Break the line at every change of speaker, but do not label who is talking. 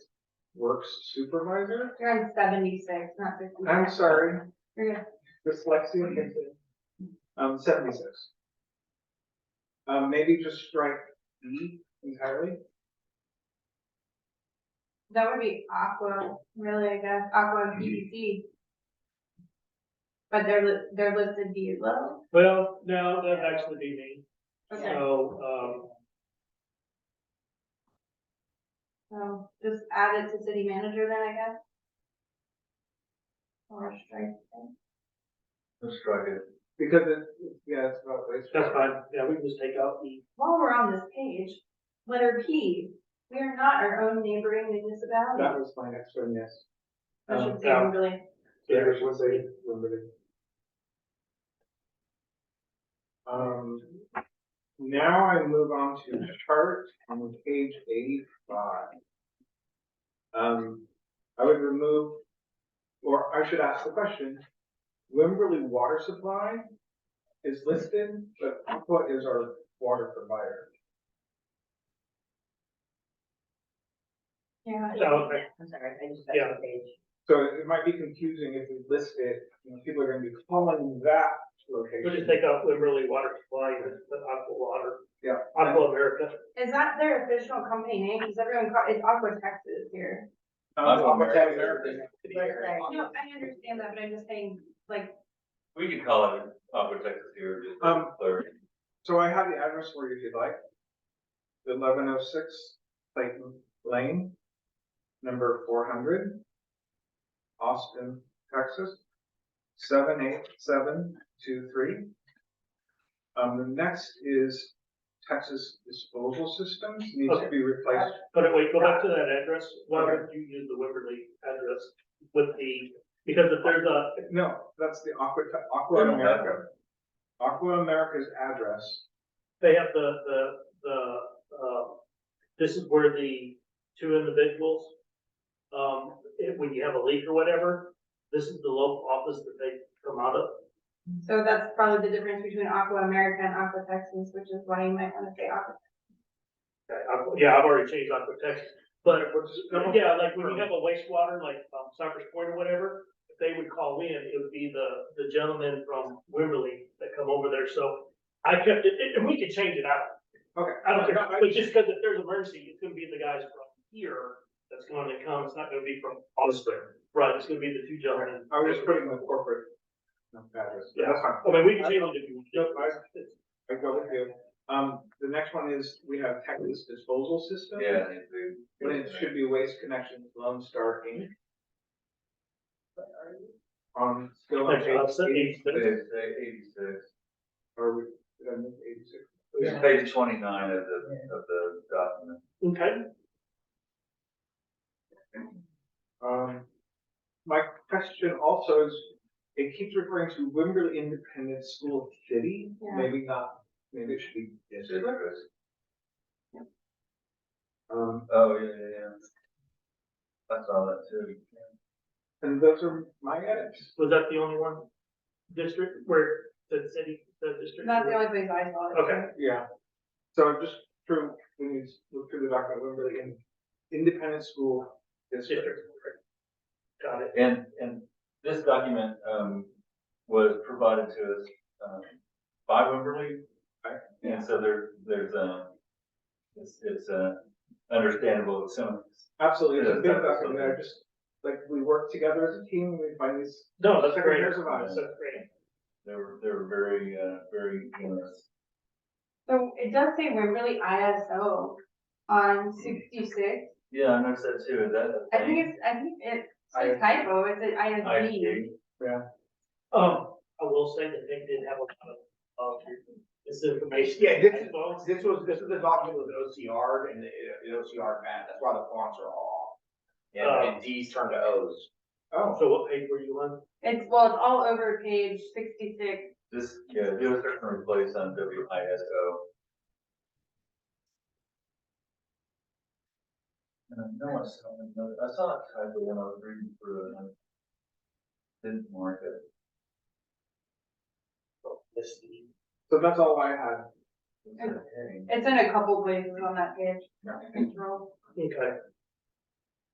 Works Supervisor?
You're on seventy-six, not fifty.
I'm sorry,
Yeah.
dyslexia hits it. Um, seventy-six. Um, maybe just strike E entirely?
That would be Aqua, really, I guess, Aqua PBC. But they're, li- they're listed below.
Well, no, that'd actually be me,
Okay,
so, um,
so just add it to city manager then, I guess? Or strike it.
Let's try it.
Because it, yeah, it's about waste.
that's fine, yeah, we can just take out the,
While we're on this page, letter P, we are not our own neighboring municipality.
That was my next one, yes.
I
um,
should say,
yeah.
really,
Yeah, it was a limited. Um, now I move on to chart on page eighty-five. Um, I would remove, or I should ask the question, Wimberley Water Supply is listed, but what is our water provider?
yeah.
so,
I'm sorry, I just got to
Yeah.
the page.
So it might be confusing if we list it, you know, people are gonna be calling that
we'll just
location.
take out Wimberley Water Supply, and just put Aqua Water,
Yeah.
Aqua America,
Is that their official company name? Because everyone call, it's Aqua Texas here.
Um,
Aqua America.
America.
No, I understand that, but I'm just saying, like,
We could call it Aqua Texas here, just to
Um,
clear.
So I have the address for you if you'd like. Eleven oh six Clayton Lane, number four hundred, Austin, Texas, seven eight seven two three. Um, the next is Texas Disposal Systems needs to be replaced.
but wait, go back to that address, why would you use the Wimberley address with the, because if there's a,
No, that's the Aqua, Aqua
They don't have
America. Aqua America's address.
they have the, the, the, uh, this is where the two individuals, um, if- when you have a leak or whatever, this is the local office that they come out of,
so that's probably the difference between Aqua America and Aqua Texas, which is why you might want to say Aqua.
Okay, I've- Yeah, I've already changed on protection, but,
Which is-
yeah, like when you have a wastewater, like, um, Cypress Point or whatever, if they would call in, it would be the, the gentleman from Wimberley that come over there, so I kept it, and- and we could change it out.
Okay.
I don't care,
No, I-
but just because if there's an emergency, it's gonna be the guys from here that's going to come, it's not gonna be from Austin, right, it's gonna be the two gentlemen.
I was just putting the corporate address, but that's fine.
I mean, Oh, we can change it if you want.
Nope, I go with you. Um, the next one is, we have Texas disposal system.
Yeah, they do.
But it should be Waste Connections Lone Star Inc. On, Um, still on
Actually, I'll
page
send
eighty,
you-
It's, uh, eighty-six.
or we- did I miss eighty-six?
It's page twenty-nine of the, of the document.
Okay,
Um, my question also is, it keeps referring to Wimberley Independent School City,
Yeah.
maybe not, maybe it should be
It's
district.
interesting.
Um,
Oh, yeah, yeah, yeah. I saw that too.
and those are my edits.
was that the only one? District, where, the city, the district?
That's the only place I saw it.
Okay.
Yeah. So just through, when you look through the document, Wimberley in- Independent School District.
District. Got it.
And, and this document, um, was provided to us, um, by Wimberly.
Right.
And so there, there's, um, it's, it's, uh, understandable, it's some,
Absolutely, it's a
Yeah,
big
that's
document, I just, like, we work together as a team, we find these,
No, that's great.
Years of
ours.
That's great.
they were, they were very, uh, very generous.
So it does say Wimberley ISO on sixty-six.
Yeah, I noticed that too, is that
I
a thing?
think it's, I think it's a
I-
typo, it's an ISD.
ISD.
Um, I will say that they did have a lot of, uh, of misinformation.
Yeah, this is-
As well as-
This was, this is the document with OCR and the, the OCR map, that's why the fonts are all off. And, and Ds turn to Os.
oh,
So what page were you on?
It's, well, it's all over page sixty-six.
This, yeah, do a search and replace on W I S O. And I know I saw another, I saw a typo when I was reading through it, and I didn't mark it.
This,
so that's all I had.
It's a heading.
It's in a couple places on that page.
Yeah.
Control.
okay,